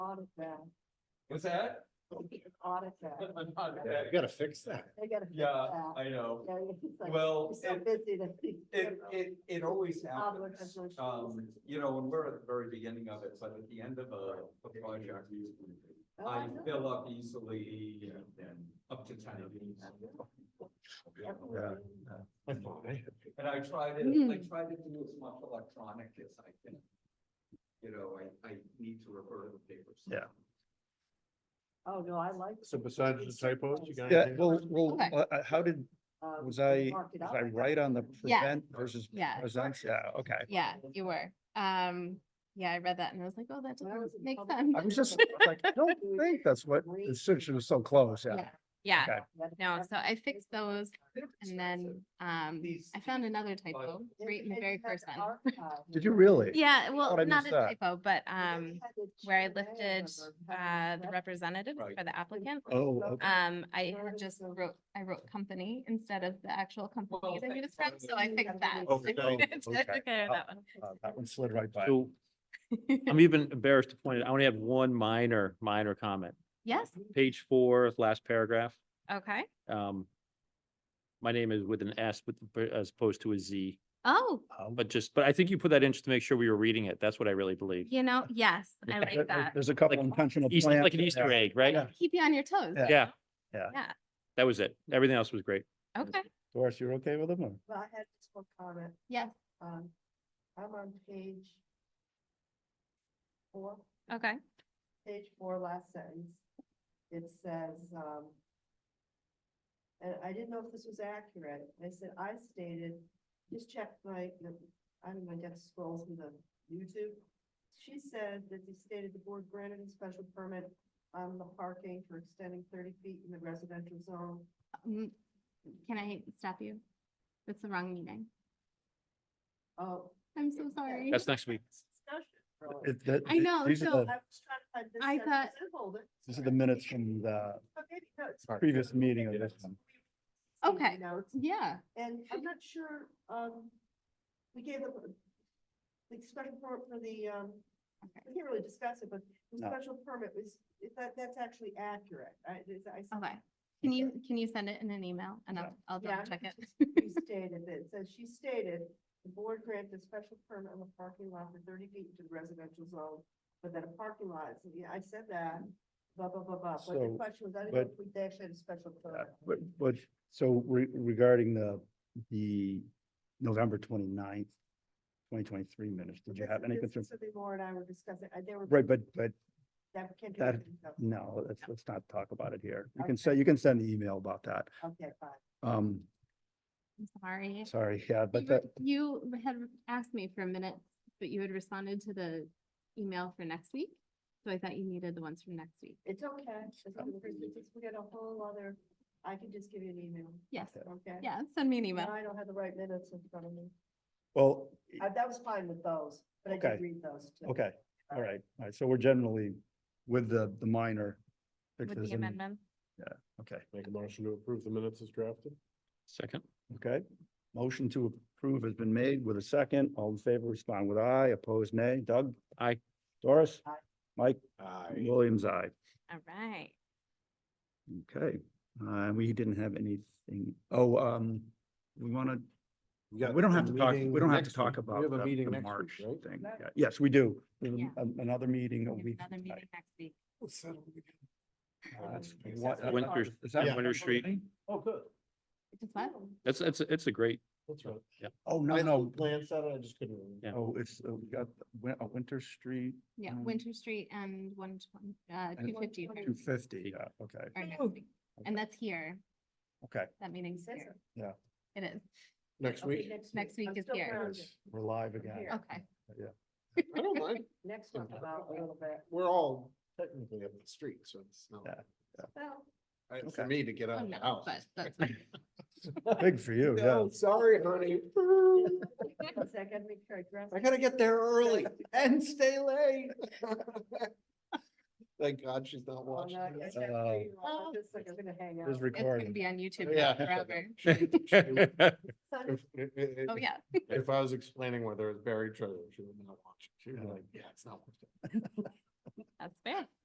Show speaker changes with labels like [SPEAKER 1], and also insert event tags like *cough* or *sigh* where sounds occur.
[SPEAKER 1] AutoZone.
[SPEAKER 2] What's that?
[SPEAKER 1] AutoZone.
[SPEAKER 2] Okay.
[SPEAKER 3] gotta fix that.
[SPEAKER 1] They gotta fix
[SPEAKER 2] Yeah,
[SPEAKER 1] that.
[SPEAKER 2] I know.
[SPEAKER 1] Yeah, he's like,
[SPEAKER 2] Well,
[SPEAKER 1] you're so
[SPEAKER 2] it,
[SPEAKER 1] busy that. you-
[SPEAKER 2] it, it, it always happens.
[SPEAKER 1] Obligation.
[SPEAKER 2] Um, you know, and we're at the very beginning of it, but at the end of a, a project,
[SPEAKER 1] Oh,
[SPEAKER 2] I
[SPEAKER 1] know.
[SPEAKER 2] fill up easily and up to ten of these.
[SPEAKER 1] Definitely.
[SPEAKER 2] And I try to,
[SPEAKER 1] Hmm.
[SPEAKER 2] I try to do as much electronic as I can. You know, I, I need to refer to the papers.
[SPEAKER 4] Yeah.
[SPEAKER 1] Oh, no, I like.
[SPEAKER 3] *laughs* So besides the typos, you got?
[SPEAKER 4] Yeah,
[SPEAKER 3] anything
[SPEAKER 4] well, well,
[SPEAKER 5] Okay.
[SPEAKER 4] uh, uh, how did,
[SPEAKER 1] uh,
[SPEAKER 4] was
[SPEAKER 1] you
[SPEAKER 4] I,
[SPEAKER 1] mark it
[SPEAKER 4] was
[SPEAKER 1] up,
[SPEAKER 4] I
[SPEAKER 1] got
[SPEAKER 4] right on the
[SPEAKER 1] it.
[SPEAKER 5] Yeah.
[SPEAKER 4] prevent versus
[SPEAKER 5] Yeah.
[SPEAKER 4] presents? Yeah,
[SPEAKER 5] *laughs*
[SPEAKER 4] okay. *laughs*
[SPEAKER 5] Yeah, you were. Um, yeah, I read that and I was like, oh, that
[SPEAKER 1] When I was
[SPEAKER 5] doesn't
[SPEAKER 1] in
[SPEAKER 5] make
[SPEAKER 1] public
[SPEAKER 5] sense.
[SPEAKER 4] I was just like, I don't think that's what, oh, it should, she was so close, yeah.
[SPEAKER 5] Yeah. Yeah,
[SPEAKER 4] Okay.
[SPEAKER 1] That-
[SPEAKER 5] no,
[SPEAKER 1] that-
[SPEAKER 5] so I fixed those
[SPEAKER 2] They're
[SPEAKER 5] and then,
[SPEAKER 2] expensive.
[SPEAKER 5] um,
[SPEAKER 2] These-
[SPEAKER 5] I found another
[SPEAKER 2] But-
[SPEAKER 5] typo
[SPEAKER 1] if
[SPEAKER 5] right in the
[SPEAKER 1] it
[SPEAKER 5] very
[SPEAKER 1] had
[SPEAKER 5] first one.
[SPEAKER 1] archive,
[SPEAKER 4] Did you
[SPEAKER 1] know,
[SPEAKER 4] really?
[SPEAKER 5] Yeah,
[SPEAKER 4] thought
[SPEAKER 5] well,
[SPEAKER 4] I
[SPEAKER 5] not a
[SPEAKER 4] missed that.
[SPEAKER 5] typo, but,
[SPEAKER 1] if it
[SPEAKER 5] um,
[SPEAKER 1] had the
[SPEAKER 5] where I
[SPEAKER 1] Q and A
[SPEAKER 5] lifted,
[SPEAKER 1] number,
[SPEAKER 5] uh,
[SPEAKER 1] how
[SPEAKER 5] the
[SPEAKER 1] many
[SPEAKER 5] representative
[SPEAKER 2] Right.
[SPEAKER 5] for the applicant.
[SPEAKER 4] Oh, okay.
[SPEAKER 5] Um, I
[SPEAKER 1] Where
[SPEAKER 5] had
[SPEAKER 1] is
[SPEAKER 5] just
[SPEAKER 1] the-
[SPEAKER 5] wrote, I wrote company instead of the actual company that we
[SPEAKER 2] thank
[SPEAKER 5] described,
[SPEAKER 2] you.
[SPEAKER 5] so I fixed that.
[SPEAKER 1] Oh,
[SPEAKER 5] *laughs* I
[SPEAKER 4] okay.
[SPEAKER 5] took care of that one.
[SPEAKER 4] Uh, That one slid right by.
[SPEAKER 6] So I'm even embarrassed to point it, I only have one minor, minor comment.
[SPEAKER 5] Yes,
[SPEAKER 6] Page four, last paragraph.
[SPEAKER 1] *laughs*
[SPEAKER 5] okay.
[SPEAKER 6] Um, my name is with an S with, as opposed to a Z,
[SPEAKER 5] Oh,
[SPEAKER 4] Um,
[SPEAKER 6] but just, but I think you put that in just to make sure we were reading it. That's what I really believe.
[SPEAKER 5] you know, yes, I
[SPEAKER 4] there-
[SPEAKER 5] like that.
[SPEAKER 4] There's a couple
[SPEAKER 6] Like
[SPEAKER 4] intentional.
[SPEAKER 6] Easter,
[SPEAKER 4] plants
[SPEAKER 6] like an
[SPEAKER 4] in
[SPEAKER 6] Easter
[SPEAKER 4] there.
[SPEAKER 6] egg, right?
[SPEAKER 4] Yeah.
[SPEAKER 5] Keep you on your toes.
[SPEAKER 4] Yeah.
[SPEAKER 6] Yeah.
[SPEAKER 4] Yeah.
[SPEAKER 5] Yeah.
[SPEAKER 6] That was it. Everything else was great.
[SPEAKER 5] Okay,
[SPEAKER 4] Doris, you're okay with them? or-
[SPEAKER 1] Well, I had just one comment.
[SPEAKER 5] yes,
[SPEAKER 1] Um, I'm on page four,
[SPEAKER 5] okay.
[SPEAKER 1] page four, last sentence. It says, um, and I didn't know if this was accurate. I said, I stated, just check my, I don't know, I got to scroll through the YouTube. She said that they stated the board granted a special permit on the parking for extending thirty feet in the residential zone.
[SPEAKER 5] Um, Can I stop you? That's the wrong meeting.
[SPEAKER 1] Oh.
[SPEAKER 5] I'm so sorry.
[SPEAKER 6] That's next week.
[SPEAKER 1] Discussion.
[SPEAKER 4] It- that-
[SPEAKER 5] I know,
[SPEAKER 4] These are
[SPEAKER 5] so-
[SPEAKER 4] the,
[SPEAKER 1] I was trying to find this
[SPEAKER 5] I
[SPEAKER 1] sentence
[SPEAKER 5] thought-
[SPEAKER 1] and hold it.
[SPEAKER 4] these are the minutes from the
[SPEAKER 1] Okay, no, it's-
[SPEAKER 4] previous meeting of this one.
[SPEAKER 5] Okay.
[SPEAKER 1] Notes,
[SPEAKER 5] Yeah,
[SPEAKER 1] and I'm not sure, um, we gave them the special permit for the, um,
[SPEAKER 5] Okay.
[SPEAKER 1] we can't really discuss it, but the
[SPEAKER 4] No.
[SPEAKER 1] special permit was, if that, that's actually accurate. I, it's- I. said-
[SPEAKER 5] okay. Can you, can you send it in an email and I'll, I'll
[SPEAKER 1] Yeah,
[SPEAKER 5] double check it? *laughs*
[SPEAKER 1] she Restated it, says she stated, the board granted a special permit on the parking lot for thirty feet into the residential zone, but that a parking lot, so, yeah, I said that, blah, blah, blah, blah, but the
[SPEAKER 4] So,
[SPEAKER 1] question was, I didn't know
[SPEAKER 4] but- Uh,
[SPEAKER 1] if we actually had a special
[SPEAKER 4] Yeah,
[SPEAKER 1] permit.
[SPEAKER 4] But, but, so re- regarding the, the November twenty-ninth, twenty twenty-three minutes, did you
[SPEAKER 1] This-
[SPEAKER 4] have any
[SPEAKER 1] this is
[SPEAKER 4] concern?
[SPEAKER 1] Something more and I were discussing, I- they were.
[SPEAKER 4] Right, but, but
[SPEAKER 1] that can't do
[SPEAKER 4] that-
[SPEAKER 1] anything, so-
[SPEAKER 4] no, let's, let's not talk about it here. You can
[SPEAKER 1] Okay.
[SPEAKER 4] say, you can send an email about that.
[SPEAKER 1] Okay, fine.
[SPEAKER 4] Um,
[SPEAKER 5] I'm sorry.
[SPEAKER 4] sorry, yeah,
[SPEAKER 5] You
[SPEAKER 4] but
[SPEAKER 5] were-
[SPEAKER 4] that,
[SPEAKER 5] You had asked me for a minute, but you had responded to the email for next week. So I thought you needed the ones from next week.
[SPEAKER 1] It's okay. It's okay,
[SPEAKER 4] Um,
[SPEAKER 1] because it's- We got a whole other, I can just give you an email,
[SPEAKER 5] Yes,
[SPEAKER 1] okay?
[SPEAKER 5] yeah, send me an
[SPEAKER 1] No,
[SPEAKER 5] email.
[SPEAKER 1] I don't have the right minutes in front of me.
[SPEAKER 4] well,
[SPEAKER 1] Uh, That was fine with those, but I
[SPEAKER 4] Okay.
[SPEAKER 1] did read those too.
[SPEAKER 4] okay, all right, all right. So we're generally with the, the minor
[SPEAKER 5] With
[SPEAKER 4] fixes
[SPEAKER 5] the
[SPEAKER 4] and,
[SPEAKER 5] amendment.
[SPEAKER 4] okay,
[SPEAKER 3] Make a motion to approve the minutes as drafted?
[SPEAKER 6] Second.
[SPEAKER 4] okay. Motion to approve has been made with a second. All in favor, respond with aye, opposed nay. Doug?
[SPEAKER 6] Aye.
[SPEAKER 4] Doris?
[SPEAKER 1] Aye.
[SPEAKER 4] Mike?
[SPEAKER 3] Aye.
[SPEAKER 4] Williams, aye.
[SPEAKER 5] All right.
[SPEAKER 4] Okay, uh, we didn't have anything, oh, um, we wanna, we don't have to talk, we don't have to talk about
[SPEAKER 3] We have
[SPEAKER 4] the-
[SPEAKER 3] a meeting
[SPEAKER 4] the
[SPEAKER 3] next
[SPEAKER 4] March
[SPEAKER 3] week, right?
[SPEAKER 4] thing.
[SPEAKER 1] No.
[SPEAKER 4] Yeah, Yes, we do. We have
[SPEAKER 5] Yeah.
[SPEAKER 4] an- Another meeting a
[SPEAKER 5] We have
[SPEAKER 4] week.
[SPEAKER 5] Another
[SPEAKER 4] from
[SPEAKER 5] meeting
[SPEAKER 4] tonight.
[SPEAKER 5] next week.
[SPEAKER 4] Uh, that's-
[SPEAKER 3] Yes.
[SPEAKER 4] what-
[SPEAKER 6] That's Winter-
[SPEAKER 4] uh, is that
[SPEAKER 6] Yeah. Winter Street.
[SPEAKER 3] Oh, good.
[SPEAKER 5] Just what?
[SPEAKER 1] Oh.
[SPEAKER 6] That's, that's, it's a great,
[SPEAKER 3] That's right.
[SPEAKER 4] Oh, no, no,
[SPEAKER 3] Plans that I just couldn't. remember.
[SPEAKER 6] Yeah.
[SPEAKER 4] oh, it's, uh, we got Win- uh, Winter Street
[SPEAKER 5] Yeah,
[SPEAKER 4] Um,
[SPEAKER 5] Winter Street and one twenty, uh,
[SPEAKER 4] and-
[SPEAKER 5] two fifty.
[SPEAKER 4] two fifty, yeah, okay,
[SPEAKER 5] And that's here,
[SPEAKER 4] okay,
[SPEAKER 5] that meeting's
[SPEAKER 1] Is it?
[SPEAKER 5] here.
[SPEAKER 4] Yeah.
[SPEAKER 5] It is.
[SPEAKER 3] Next
[SPEAKER 1] Okay,
[SPEAKER 3] week.
[SPEAKER 5] Next week
[SPEAKER 1] I'm
[SPEAKER 5] is
[SPEAKER 1] still
[SPEAKER 5] here.
[SPEAKER 1] grounded.
[SPEAKER 4] Yes. we're live again.
[SPEAKER 1] Here.
[SPEAKER 5] Okay.
[SPEAKER 3] I don't mind.
[SPEAKER 1] Next month about a little
[SPEAKER 3] *laughs*
[SPEAKER 1] bit.
[SPEAKER 3] We're all technically up the street, so it's not.
[SPEAKER 4] Yeah.
[SPEAKER 1] Well,
[SPEAKER 3] Uh,
[SPEAKER 4] Okay.
[SPEAKER 3] For me to get
[SPEAKER 5] Oh,
[SPEAKER 3] out of the
[SPEAKER 5] no,
[SPEAKER 3] house.
[SPEAKER 5] but
[SPEAKER 4] *laughs*
[SPEAKER 5] that's fine.
[SPEAKER 4] Big for you, yeah.
[SPEAKER 3] No, sorry, honey.
[SPEAKER 1] it's like I gotta make sure I dress.
[SPEAKER 3] I gotta get there early and stay late. *laughs* Thank God she's not
[SPEAKER 1] Oh,
[SPEAKER 3] watching.
[SPEAKER 1] no, I
[SPEAKER 3] this.
[SPEAKER 1] can't show you. I'm
[SPEAKER 5] Oh.
[SPEAKER 1] just like, I'm gonna hang out.
[SPEAKER 4] It's
[SPEAKER 5] It's gonna
[SPEAKER 4] recorded.
[SPEAKER 5] be on YouTube
[SPEAKER 3] Yeah.
[SPEAKER 5] now forever.
[SPEAKER 3] *laughs*
[SPEAKER 1] Sunday,
[SPEAKER 3] If, if, if-
[SPEAKER 5] Oh, yeah.
[SPEAKER 3] if I was explaining where there was buried treasure, she would not watch. it. She would be
[SPEAKER 4] Yeah.
[SPEAKER 3] like, yeah, it's not worth it.
[SPEAKER 5] That's fair.